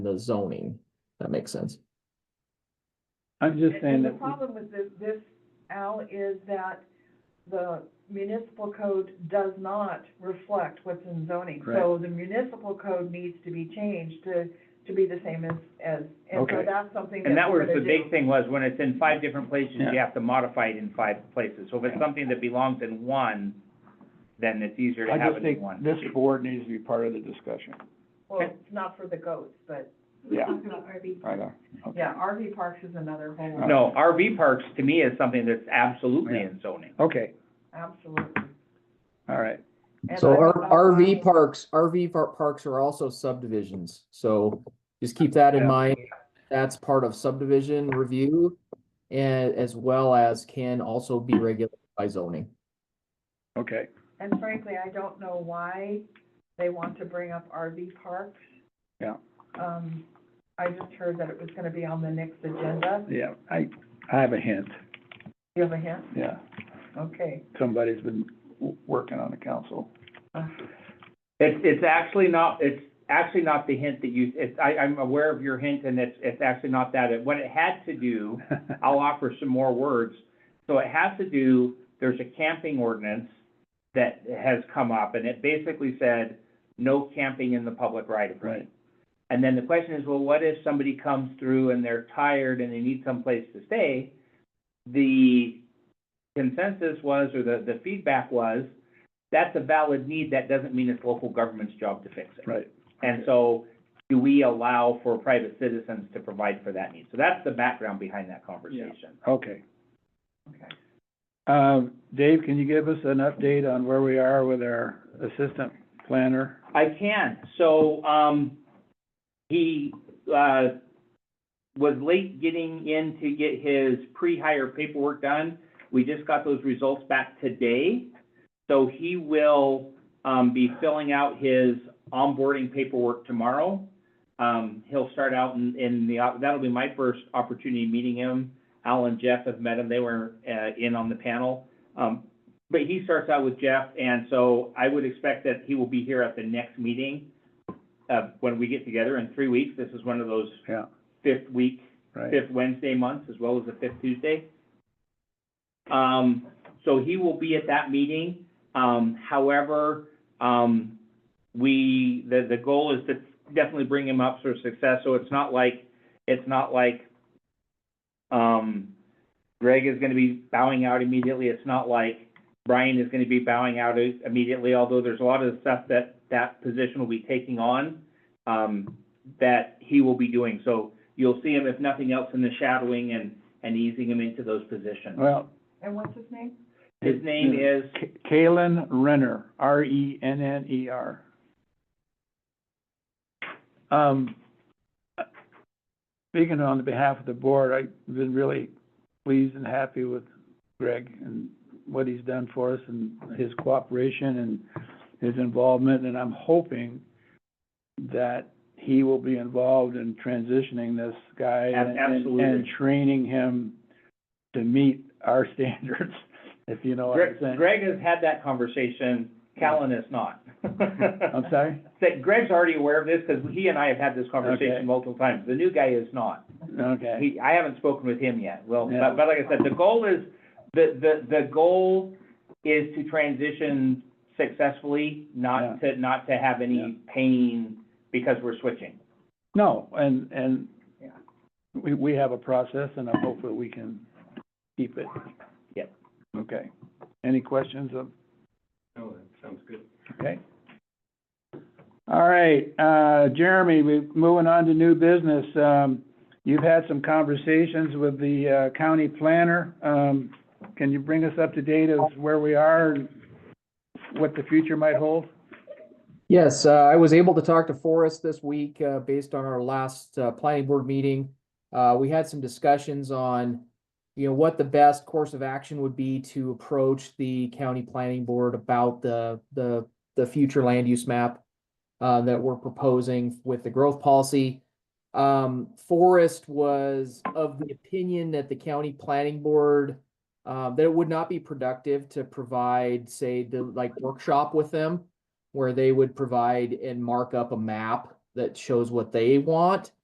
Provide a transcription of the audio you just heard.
the zoning. That makes sense. I'm just saying And the that, problem with this, this, Al, is that the municipal code does not reflect what's in zoning. So the municipal code needs to be changed to, to be the same as, as, and so Okay. that's something that And that we're was the gonna big do. thing was when it's in five different places, you Yeah. have to modify it in five places. So if it's something that belongs in one, then it's easier to I have just it in think one. this board needs to be part of the discussion. Well, it's not for the goats, but, Yeah. about RV. I know. Okay. yeah, RV parks is another whole, No, RV parks to me is something that's absolutely in zoning. Okay, absolutely. all right. And So I R- think that's why- RV parks, RV par- parks are also subdivisions, so just keep that in Yeah. mind. That's part of subdivision review and as well as can also be regulated by zoning. Okay, And frankly, I don't know why they want to bring up RV parks. Yeah. Um, I just heard that it was gonna be on the next agenda. yeah, I, I have a hint, You have a hint? yeah. Okay. Somebody's been w- working on the council. It's, it's actually not, it's actually not the hint that you, it's, I, I'm aware of your hint and it's, it's actually not that. It- What it had to do I'll offer some more words. So it has to do, there's a camping ordinance that has come up, and it basically said, no camping in the public right of way. Right. And then the question is, well, what if somebody comes through and they're tired and they need someplace to stay? The consensus was, or the, the feedback was, that's a valid need, that doesn't mean it's local government's job to fix it. Right, And Okay. so, do we allow for private citizens to provide for that need? So that's the background behind that conversation. okay. Okay. Um, Dave, can you give us an update on where we are with our assistant planner? I can, so, um, he, uh, was late getting in to get his pre-hire paperwork done. We just got those results back today. So he will, um, be filling out his onboarding paperwork tomorrow. Um, he'll start out in, in the, op- that'll be my first opportunity meeting him. Al and Jeff have met him, they were, uh, in on the panel. Um, but he starts out with Jeff, and so I would expect that he will be here at the next meeting, uh, when we get together in three weeks. This is one of those Yeah, fifth week, right, fifth Wednesday months, as well as the fifth Tuesday. Um, so he will be at that meeting. Um, however, um, we, the, the goal is to definitely bring him up for success, so it's not like, it's not like, um, Greg is gonna be bowing out immediately, it's not like Brian is gonna be bowing out immediately, although there's a lot of stuff that that position will be taking on, um, that he will be doing, so you'll see him, if nothing else, in the shadowing and, and easing him into those positions. well. And what's his name? His name is, K- Kalen Renner, R E N N E R. Um, speaking on behalf of the board, I've been really pleased and happy with Greg and what he's done for us and his cooperation and his involvement, and I'm hoping that he will be involved in transitioning this guy Ab- and- and- and absolutely. training him to meet our standards, if you know what I'm Greg, saying. Greg has had that conversation, Callan is not. I'm sorry? That Greg's already aware of this, because he and I have had this Okay. conversation multiple times, the new guy is not. Okay, He, I haven't spoken with him yet, well, Yeah. but, but like I said, the goal is, the, the, the goal is to transition successfully, Yeah. not to, not to have any pain because we're switching. no, and, and Yeah. we, we have a process and I hope that we can keep it. Yep. Okay, any questions of? No, that sounds good. Okay. All right, uh, Jeremy, we, moving on to new business, um, you've had some conversations with the, uh, county planner. Um, can you bring us up to date of where we are and what the future might hold? Yes, uh, I was able to talk to Forrest this week, uh, based on our last, uh, planning board meeting. Uh, we had some discussions on, you know, what the best course of action would be to approach the county planning board about the, the, the future land use map uh, that we're proposing with the growth policy. Um, Forrest was of the opinion that the county planning board, uh, that it would not be productive to provide, say, the, like, workshop with them where they would provide and mark up a map that shows what they want.